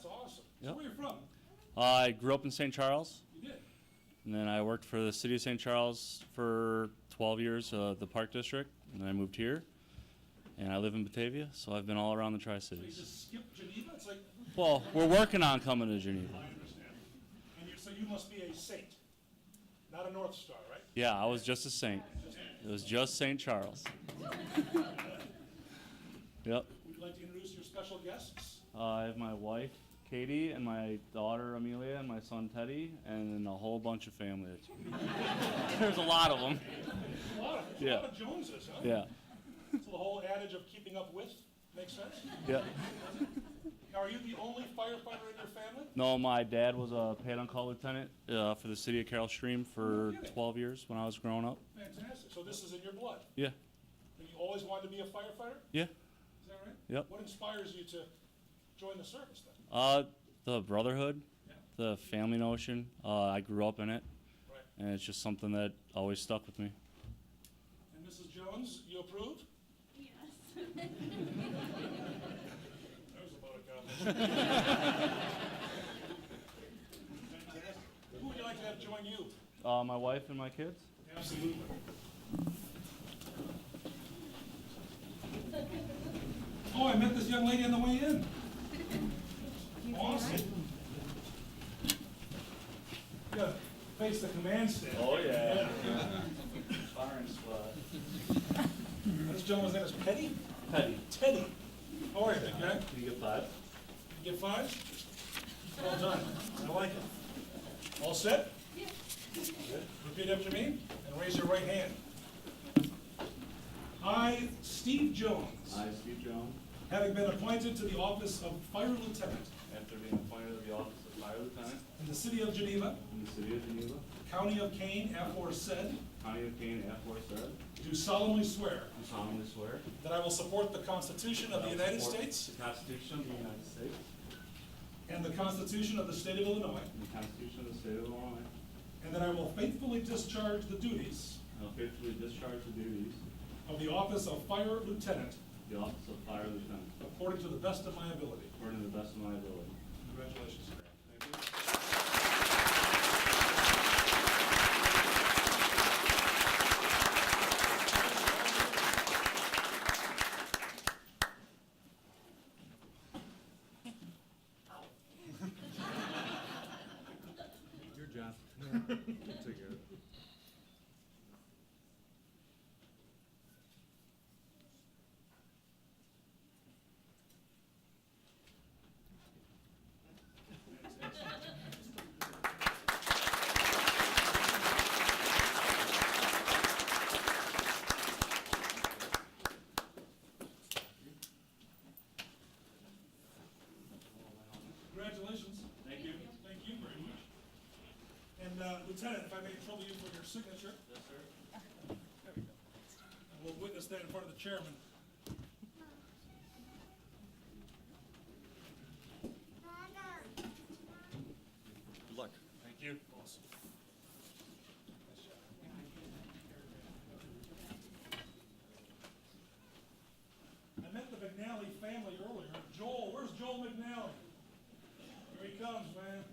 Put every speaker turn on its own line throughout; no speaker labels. So
Yeah.
where you from?
I grew up in St. Charles,
You did.
and then I worked for the city of St. Charles for 12 years, uh, the Park District, and then I moved here. And I live in Batavia, so I've been all around the Tri
So you
Cities.
just skipped Geneva? It's like,
Well, we're working on coming to Geneva.
I understand. And you, so you must be a saint, not a North Star, right?
Yeah, I was just a saint. It was just St. Charles. yep.
Would you like to introduce your special guests?
Uh, I have my wife, Katie, and my daughter, Amelia, and my son, Teddy, and then a whole bunch of family. There's a lot of them.
A lot of, a
Yeah.
lot of Joneses, huh?
Yeah.
So the whole adage of keeping up with makes sense.
Yeah.
Now, are you the only firefighter in your family?
No, my dad was a paid on call lieutenant uh, for the city of Carroll Stream
No
for
kidding.
12 years when I was growing up.
Fantastic. So this is in your blood.
Yeah.
And you always wanted to be a firefighter?
Yeah.
Is that right?
Yep.
What inspires you to join the service then?
Uh, the brotherhood,
Yeah.
the family notion, uh, I grew up in it,
Right.
and it's just something that always stuck with me.
And Mrs. Jones, you approve?
Yes.
That was about a compliment. Fantastic. Who would you like to have join you?
Uh, my wife and my kids?
Absolutely. Oh, I met this young lady on the way in. Awesome. Yeah, face the command stand.
Oh, yeah. Firing squad.
This gentleman's name is Petty?
Teddy,
Teddy. How are you, big guy?
can you get five?
You get five? Well done. I like it. All set? Repeat after me and raise your right hand. I, Steve Jones,
I, Steve Jones,
having been appointed to the office of Fire Lieutenant
after being appointed to the office of fire lieutenant
in the city of Geneva,
in the city of Geneva,
county of Kane, aforesaid,
county of Kane, aforesaid,
do solemnly swear
do solemnly swear
that I will support the Constitution of the United States
The Constitution of the United States.
and the Constitution of the state of Illinois,
And the Constitution of the State of Illinois.
and that I will faithfully discharge the duties
And will faithfully discharge the duties of
of the office of Fire Lieutenant
the office of Fire Lieutenant
according to the best of my ability.
according to the best of my ability.
Congratulations. sir. Thank you.
Your job. Take care of it.
Congratulations. Thank you. Thank you very much. And uh, Lieutenant, if I may trouble you for your signature? Yes, sir. There we go. And we'll witness that in front of the chairman.
Good luck.
Thank you. Awesome. I met the McNally family earlier. Joel, where's Joel McNally? Here he comes, man.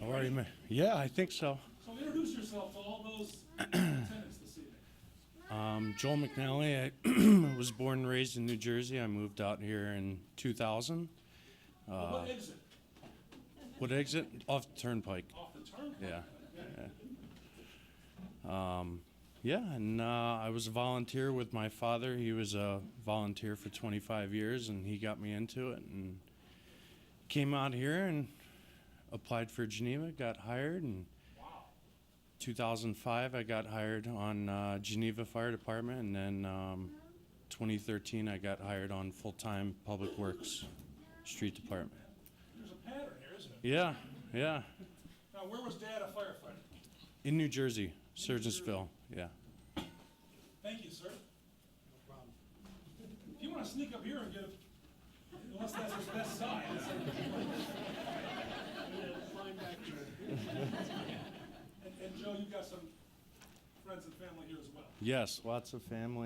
I've already met. Yeah, I think so.
So introduce yourself to all those lieutenants this evening.
Um, Joel McNally. I was born and raised in New Jersey. I moved out here in 2000.
What exit?
What exit? Off the Turnpike.
Off the turnpike?
Yeah. yeah. Um, yeah, and uh, I was a volunteer with my father. He was a volunteer for 25 years, and he got me into it and came out here and applied for Geneva, got hired, and 2005 I got hired on uh, Geneva Fire Department, and then um, 2013 I got hired on full-time Public Works Street Department.
There's a pattern here, isn't it?
Yeah, yeah.
Now, where was Dad a firefighter?
In New Jersey, Surgeonsville. Yeah.
Thank you, sir. No problem. If you want to sneak up here and get a, unless that's his best side. And, and Joe, you've got some friends and family here as well.
Yes, lots of family.